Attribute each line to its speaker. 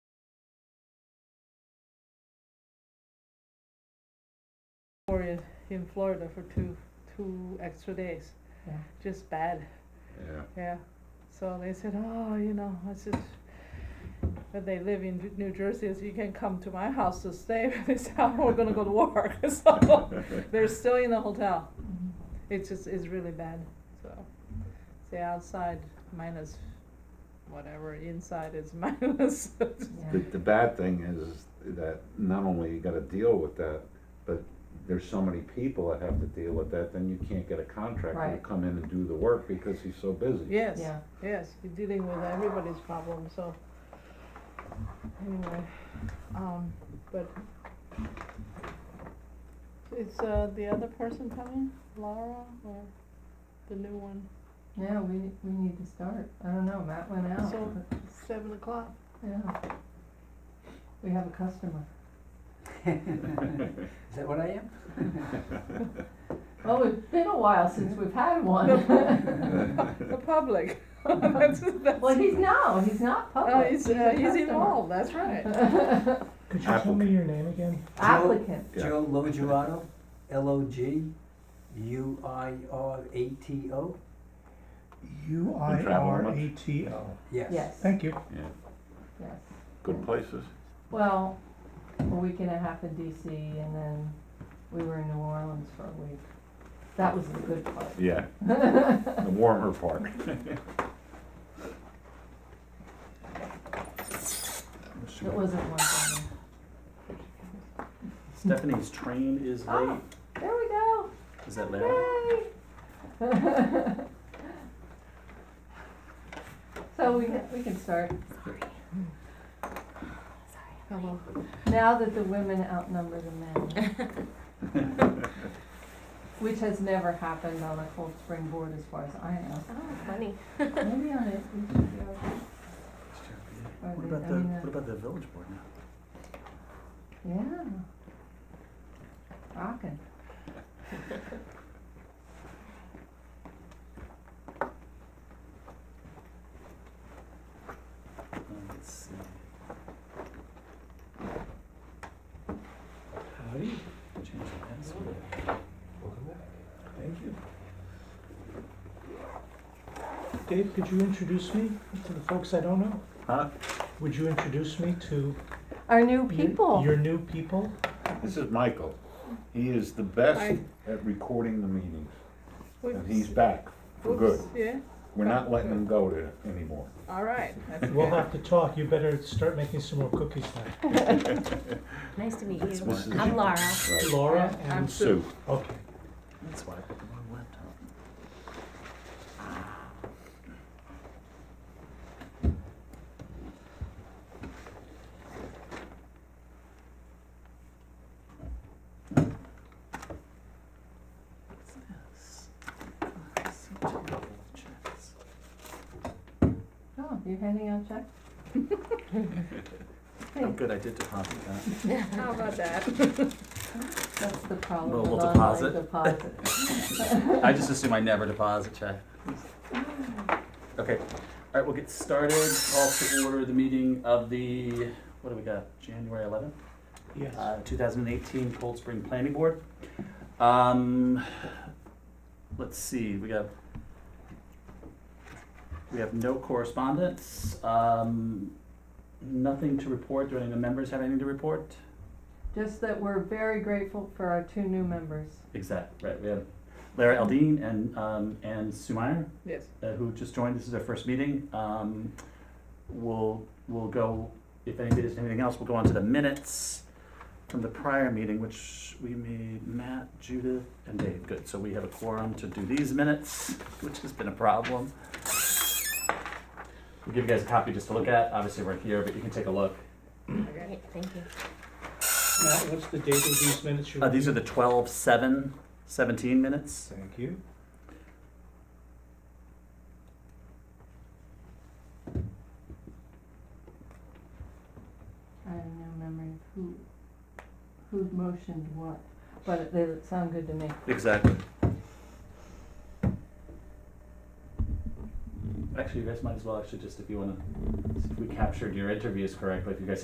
Speaker 1: or in, in Florida for two, two extra days.
Speaker 2: Yeah.
Speaker 1: Just bad,
Speaker 3: yeah.
Speaker 1: yeah. So they said, oh, you know, I said, but they live in Ju- New Jersey, so you can come to my house to stay. They said, "Oh, we're gonna go to work, so they're still in the hotel.
Speaker 2: Mhm.
Speaker 1: It's just, it's really bad, so. Say outside minus whatever, inside is minus.
Speaker 3: The,
Speaker 2: Yeah.
Speaker 3: the bad thing is that not only you gotta deal with that, but there's so many people that have to deal with that, then you can't get a contractor to
Speaker 2: Right.
Speaker 3: come in and do the work because he's so busy.
Speaker 1: Yes,
Speaker 2: Yeah.
Speaker 1: yes, you're dealing with everybody's problem, so. Anyway, um, but. Is, uh, the other person coming, Laura, or the new one,
Speaker 2: Yeah, we, we need to start. I don't know, Matt went out,
Speaker 1: So-
Speaker 2: but,
Speaker 1: seven o'clock?
Speaker 2: yeah. We have a customer.
Speaker 4: Is that what I am?
Speaker 2: Well, it's been a while since we've had one.
Speaker 1: The public, that's, that's,
Speaker 2: Well, he's, no, he's not
Speaker 1: oh,
Speaker 2: public.
Speaker 1: he's,
Speaker 2: a
Speaker 1: uh, he's
Speaker 2: customer.
Speaker 1: involved, that's right.
Speaker 5: Could you tell me your name again?
Speaker 2: Applicant.
Speaker 3: Yeah.
Speaker 4: Joe Logirato, L O G U I R A T O?
Speaker 5: U I R A T O.
Speaker 4: Yes.
Speaker 2: Yes.
Speaker 5: Thank you.
Speaker 3: Yeah,
Speaker 2: Yes.
Speaker 3: good places.
Speaker 2: Well, a week and a half in DC and then we were in New Orleans for a week. That was the good part.
Speaker 3: Yeah, the warmer part.
Speaker 2: It wasn't one thing.
Speaker 6: Stephanie's train is late.
Speaker 2: Oh, there we go.
Speaker 6: Is that loud?
Speaker 2: Yay! So we can, we can start.
Speaker 1: Hello.
Speaker 2: Now that the women outnumber the men, which has never happened on a Cold Spring board as far as I know.
Speaker 7: Oh, funny.
Speaker 2: Maybe on it, we should go. Or
Speaker 6: What
Speaker 2: the-
Speaker 6: about
Speaker 2: I
Speaker 6: the,
Speaker 2: mean, uh,
Speaker 6: what about the village board now?
Speaker 2: Yeah. Rockin'.
Speaker 6: Uh, Let's see. How do you change the password?
Speaker 5: Thank you. Dave, could you introduce me to the folks I don't know?
Speaker 3: Huh?
Speaker 5: Would you introduce me to
Speaker 2: Our new
Speaker 5: your-
Speaker 2: people.
Speaker 5: your new people?
Speaker 3: This is Michael. He is the best
Speaker 1: Hi.
Speaker 3: at recording the meetings, and he's
Speaker 1: Oops.
Speaker 3: back for good.
Speaker 1: Oops, Yeah,
Speaker 3: We're not letting him go to anymore.
Speaker 1: all right, that's
Speaker 5: We'll
Speaker 1: good.
Speaker 5: have to talk. You better start making some more cookies now.
Speaker 7: Nice to meet you.
Speaker 3: This is-
Speaker 7: I'm Laura.
Speaker 3: Right.
Speaker 5: Laura
Speaker 1: I'm
Speaker 5: and,
Speaker 1: Sue.
Speaker 3: Sue.
Speaker 5: okay.
Speaker 6: That's why I put the wrong laptop. What's this? Oh, so terrible with checks.
Speaker 2: Oh, you're handing out checks?
Speaker 6: Oh, good, I did deposit that.
Speaker 1: How about that?
Speaker 2: That's the problem
Speaker 6: Well,
Speaker 2: with
Speaker 6: we'll
Speaker 2: online deposit.
Speaker 6: I just assume I never deposit check. Okay, all right, we'll get started. Call to order the meeting of the, what do we got, January eleventh?
Speaker 5: Yes.
Speaker 6: uh, 2018 Cold Spring Planning Board. Um, let's see, we got, we have no correspondence, um, nothing to report. Do any of the members have anything to report?
Speaker 2: Just that we're very grateful for our two new members.
Speaker 6: Exact, right, we have Lara Eldine and, um, and Sue Meyer,
Speaker 1: Yes,
Speaker 6: uh, who just joined, this is their first meeting. Um, we'll, we'll go, if anybody does anything else, we'll go on to the minutes from the prior meeting, which we made Matt, Judith, and Dave. Good, so we have a quorum to do these minutes, which has been a problem. We'll give you guys a copy just to look at, obviously we're here, but you can take a look.
Speaker 1: okay.
Speaker 7: Great, thank you.
Speaker 5: Matt, what's the date of these minutes? you're
Speaker 6: Uh, these are the
Speaker 5: reviewing?
Speaker 6: twelve, seven, seventeen minutes.
Speaker 5: Thank you.
Speaker 2: I have no memory of who, who motioned what, but they sound good to me.
Speaker 6: Exactly. Actually, you guys might as well, actually, just if you wanna, see if we captured your interviews correctly, if you guys